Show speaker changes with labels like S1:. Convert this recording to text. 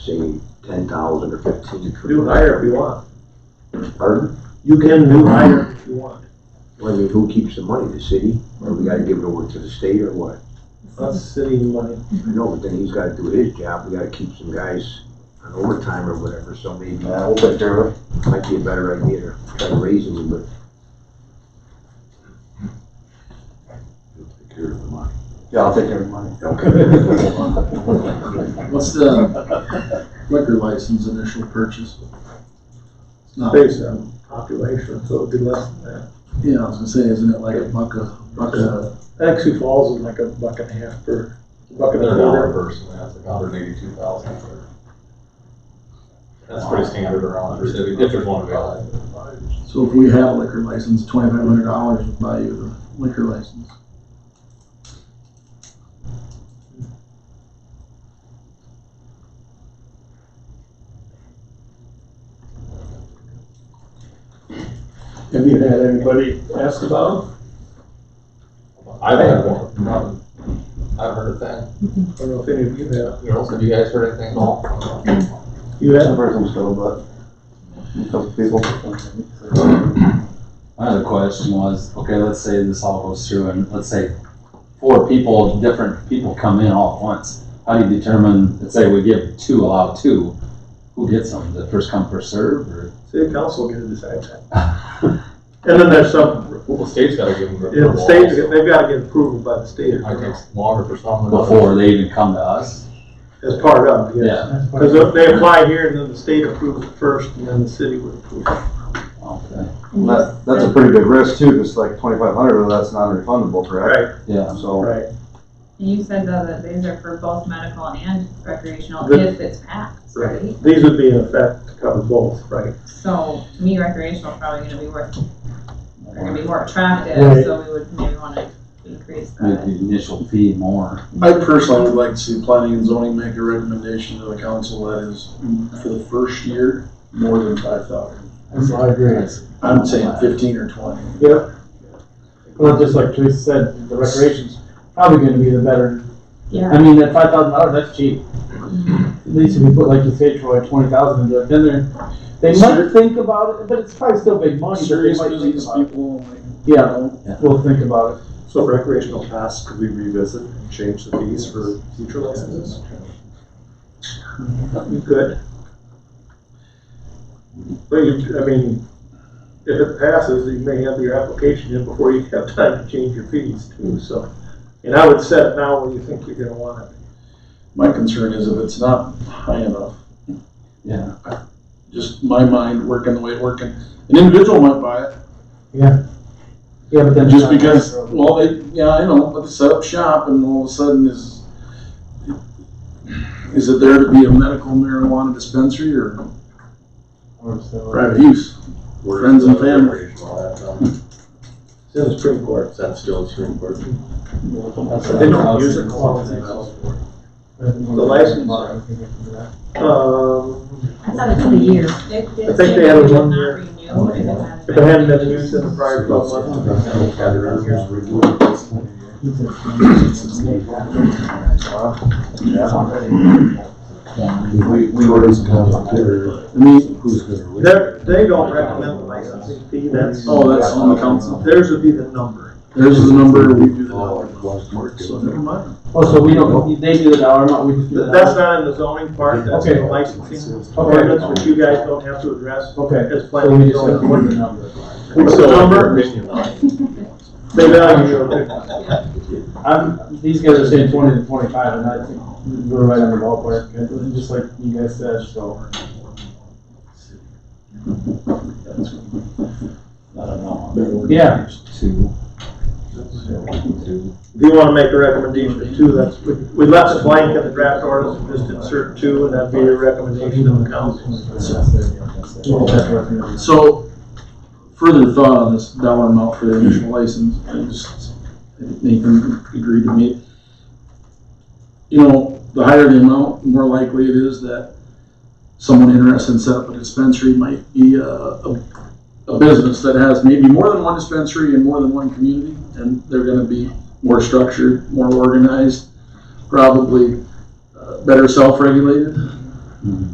S1: say ten thousand or fifteen.
S2: Do hire if you want.
S1: Pardon?
S2: You can do hire if you want.
S1: Well, I mean, who keeps the money? The city? Or we gotta give it over to the state or what?
S2: That's city money.
S1: I know, but then he's gotta do his job. We gotta keep some guys on overtime or whatever, so maybe
S3: Yeah, we'll take care of it.
S1: might be a better idea to try to raise them, but
S4: He'll take care of the money.
S3: Yeah, I'll take care of the money.
S5: What's the liquor license initial purchase? It's not, yeah,
S2: Based on population, so it'd be less than
S5: I was gonna say, isn't it like a buck a, buck a,
S2: that. Actually Falls is like a buck and a half per, buck and a
S6: They're an hour
S2: quarter.
S6: person, that's like hundred and eighty-two thousand. That's pretty standard around our city, if there's one available.
S5: so if we had a liquor license, twenty-five hundred dollars would buy you the liquor license.
S2: Have you had anybody ask about
S6: I've had one, um, I've heard a thing.
S2: it? I don't know if any of you have.
S6: Girls, have you guys heard anything at all?
S2: You
S3: I've
S2: have?
S3: heard some scuttlebutt. A couple people.
S7: My other question was, okay, let's say this all goes through and let's say four people, different people come in all at once. How do you determine, let's say we give two, allow two, who gets them? The first come, first serve or?
S2: City council get to decide that. And then there's some,
S6: Well, the state's gotta give them.
S2: yeah, the state, they've gotta get approval by the state
S6: It might take longer for some. than others.
S7: Before they even come to us?
S2: as part of, yes.
S7: Yeah.
S2: Because if they apply here and then the state approves it first and then the city would approve. it.
S7: Okay,
S3: That, that's a pretty big risk too, because like twenty-five hundred, that's non-refundable, correct?
S7: yeah.
S3: So,
S2: Right.
S8: You said though that these are for both medical and recreational
S2: The-
S8: if it's passed, right?
S2: These would be in effect to cover both, right?
S8: So to me, recreational is probably gonna be worth, they're gonna be more attractive,
S2: Right.
S8: so we would maybe wanna increase
S7: Make the
S8: that.
S7: initial fee more.
S5: I personally would like to see planning and zoning make a recommendation to the council that is, for the first year, more than five thousand.
S2: I agree.
S5: I'm saying fifteen or twenty.
S9: Well, just like Teresa said, the recreation's probably gonna be the better.
S8: Yeah,
S9: I mean, that five thousand dollars, that's cheap. At least if we put, like you say, Troy, twenty thousand into it, then they're, they
S5: Sure.
S9: might think about it, but it's probably still big money, but they
S5: Serious
S9: might think
S5: business
S9: about it.
S5: people, like, you
S9: Yeah,
S5: know,
S9: we'll think about it.
S4: So recreational pass, could we revisit and change the fees for future licenses?
S2: You could. But you, I mean, if it passes, you may have your application in before you have time to change your fees too, so. And I would set it now where you think you're gonna want it.
S5: my concern is if it's not high enough,
S7: Yeah,
S5: just my mind working the way it working. An individual might buy it,
S9: Yeah, but then.
S5: just because, well, they, yeah, I know, but they set up shop and all of a sudden is, is it there to be a medical marijuana dispensary or private use? Friends and family.
S2: It's in the Supreme Court.
S4: That's still Supreme Court.
S2: They don't use it. The license. Um,
S8: I thought it's a year. They did
S2: think
S8: say
S2: they had a
S8: would
S2: one
S8: not
S2: year.
S8: renew if it hadn't
S2: if it hadn't been used in the prior twelve months.
S1: we, we were just gonna consider who's gonna.
S2: They're, they don't recommend the licensing fee, that's.
S5: Oh, that's on the council.
S2: Theirs would be the number.
S5: There's the number, we do the dollar. So
S1: Well,
S5: never mind.
S9: Oh, so we don't, they do the dollar amount, we just do the.
S2: Th- That's not in the zoning part, that's in the
S9: Okay.
S2: licensing
S9: Okay,
S2: ordinance, which you guys don't have to address
S9: okay.
S2: as
S9: So
S2: planning
S9: we
S2: and
S9: just have
S2: zoning.
S9: to work the number.
S2: What's the number? They value it.
S9: I'm, these guys are saying twenty to twenty-five, and I think we're right on the ballpark, and just like you guys said, so.
S7: I don't know.
S9: Yeah.
S7: Two.
S2: If you wanna make a recommendation too, that's, we we left it blank in the draft ordinance, we just insert two, and that'd be a recommendation of the council.
S5: So, further thought on this dollar amount for the initial license, I just, I think Nathan agreed to me. You know, the higher the amount, the more likely it is that someone interested in setting up a dispensary might be a, a, a business that has maybe more than one dispensary and more than one community, and they're gonna be more structured, more organized, probably uh, better self-regulated.